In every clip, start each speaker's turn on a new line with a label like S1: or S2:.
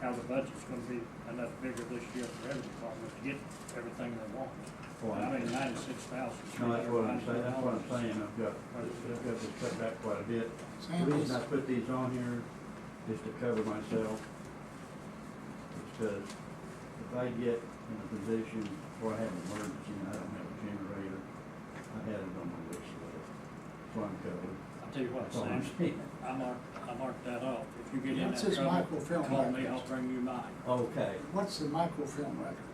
S1: how the budget's gonna be enough bigger this year for every department to get everything they want.
S2: Well,
S1: I mean,
S2: I-
S1: ninety-six thousand.
S2: No, that's what I'm saying, that's what I'm saying, I've got, I've got to cut back quite a bit. The
S3: Sam, is,
S2: reason I put these on here is to cover myself. Because if I get in a position where I have an emergency and I don't have a generator, I had it on my wish list, so I'm covered.
S1: I'll tell you what,
S2: uh, That's all I'm
S1: Sam,
S2: saying.
S1: I marked, I marked that off. If you get in
S3: This
S1: that
S3: is
S1: trouble,
S3: microfilm
S1: call me,
S3: records.
S1: I'll bring you mine.
S2: Okay,
S3: what's the microfilm records?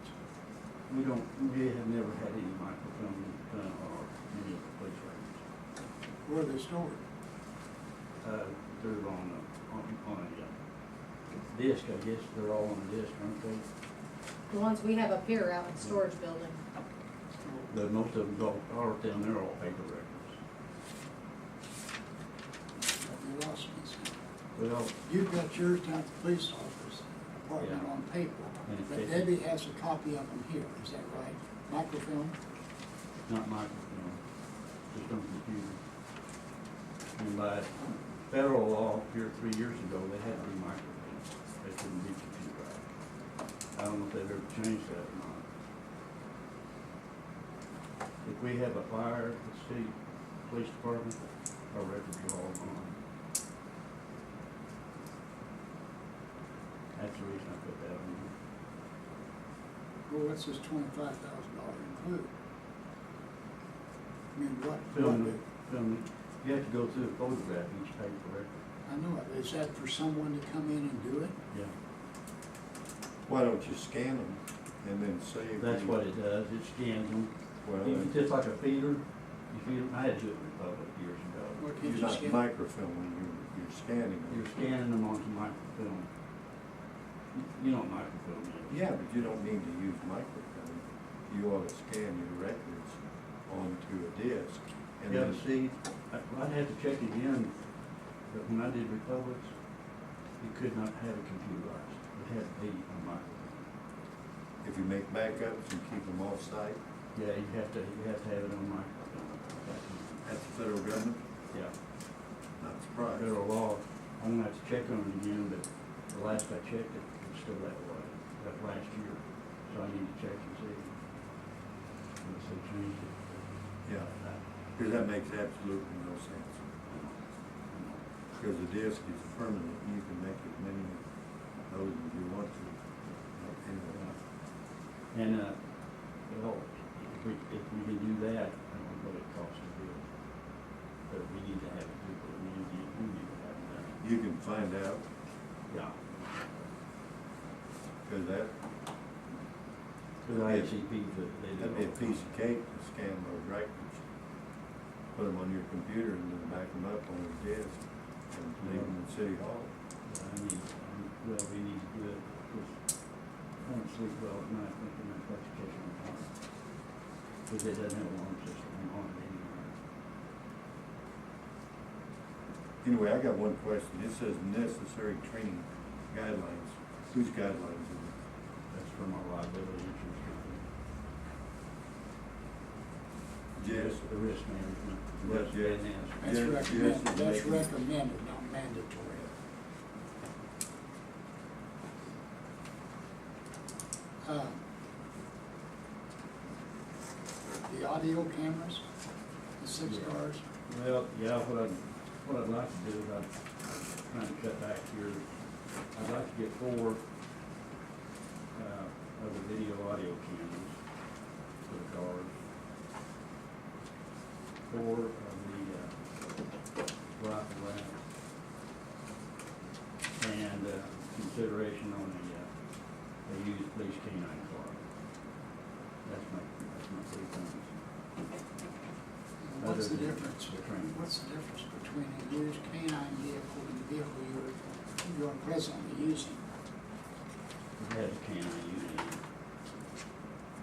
S2: we don't, we have never had any microfilm done or any of the police records.
S3: Where are they stored?
S2: uh, through on a, on, on a uh, disc, I guess, they're all on a disc, aren't they?
S4: The ones we have up here out in storage building.
S3: Oh,
S2: The, most of them all, all down there are all paper records.
S3: Have they lost me, Sam?
S2: Well,
S3: You've got yours down at the police office, apartment
S2: Yeah.
S3: on paper,
S2: And it
S3: but
S2: takes-
S3: Debbie has a copy of them here, is that right? Microfilm?
S2: not microfilm, just on computer. And by federal law, here three years ago, they had to be microfilm, they couldn't be computerized. I don't know if they've ever changed that or not. If we have a fire at the city police department, our records are all gone. That's the reason I put that on here.
S3: Well, what's this twenty-five thousand dollar include? I mean, what, what,
S2: Film,
S3: do-
S2: film, you have to go through a photograph each paper record.
S3: I know it, is that for someone to come in and do it?
S2: Yeah.
S5: Why don't you scan them and then save?
S2: That's
S5: them?
S2: what it does, it scans them,
S5: Well,
S2: Even
S5: then
S2: just like a feeder, you feed them, I had to do it in public years ago.
S3: Or can
S5: you're
S3: you
S5: not
S3: scan?
S5: microfilming, you're, you're scanning
S2: You're
S5: them.
S2: scanning them onto microfilm. You- You know what microfilm is?
S5: Yeah, but you don't need to use microfilm. You ought to scan your records onto a disk and
S2: Yeah,
S5: then
S2: but see, I- I'd have to check again, but when I did Republics, you could not have it computerized, it had to be on microfilm.
S5: if you make backups and keep them off-site,
S2: Yeah, you have to, you have to have it on microfilm.
S5: that's the federal government,
S2: Yeah.
S5: not surprised.
S2: federal law, I'm gonna have to check on it again, but the last I checked it, it's still that way, that last year, so I need to check and see. Unless they changed it.
S5: Yeah, because that makes absolutely no sense. Because a disk is permanent, you can make as many of those as you want to. But Anyway,
S2: And, uh, well, if we, if we can do that, I don't know what it costs to do. But we need to have people, we need to, we need to have that.
S5: you can find out,
S2: Yeah.
S5: because that,
S2: Cause I ICP, they do.
S5: That'd be a piece of cake to scan those records, put them on your computer and then back them up on a disk and leave them in City Hall.
S2: I mean, um, well, we need to uh, do it, because I don't sleep well at night thinking about that kitchen alarm. Because it doesn't have an alarm system on it anymore.
S5: Anyway, I got one question. It says necessary training guidelines. Whose guidelines is
S2: That's for my liability insurance company.
S5: it? Jess?
S2: The risk management.
S5: Yeah,
S2: risk
S5: yes.
S2: finance.
S3: That's
S5: Yes, yes,
S3: recommended,
S5: you
S3: that's
S5: make it.
S3: recommended, not mandatory. Um, The audio cameras, the six
S2: Yeah.
S3: cars,
S2: Well, yeah, what I'd, what I'd like to do is I'd kind of cut back here. I'd like to get four, uh, of the video audio cameras for the cars. Four of the, uh, rifle racks. And, uh, consideration on the, uh, the used police canine car. That's my, that's my three things.
S3: what's
S2: Other
S3: the
S2: than
S3: difference?
S2: the training.
S3: What's the difference between a used canine vehicle and the vehicle you're, you're presently using?
S2: It has a can of unity.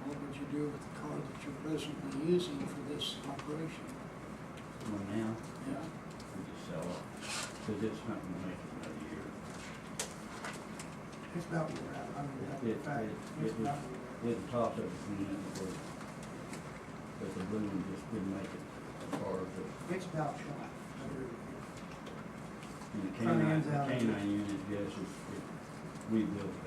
S3: What would you do with the car that you're presently using for this operation?
S2: Well, now,
S3: Yeah,
S2: we just sell it, because it's not gonna make it another year.
S6: It's about wore out, I mean, that's
S2: It-
S6: a fact,
S2: it-
S6: it's
S2: it-
S6: about wore out.
S2: It tops up between it and work. But the boom just didn't make it as far as the,
S6: It's about shot. I agree with you.
S2: and the
S6: Front end's
S2: canine, the
S6: out.
S2: canine unit, yes, it's, it- we built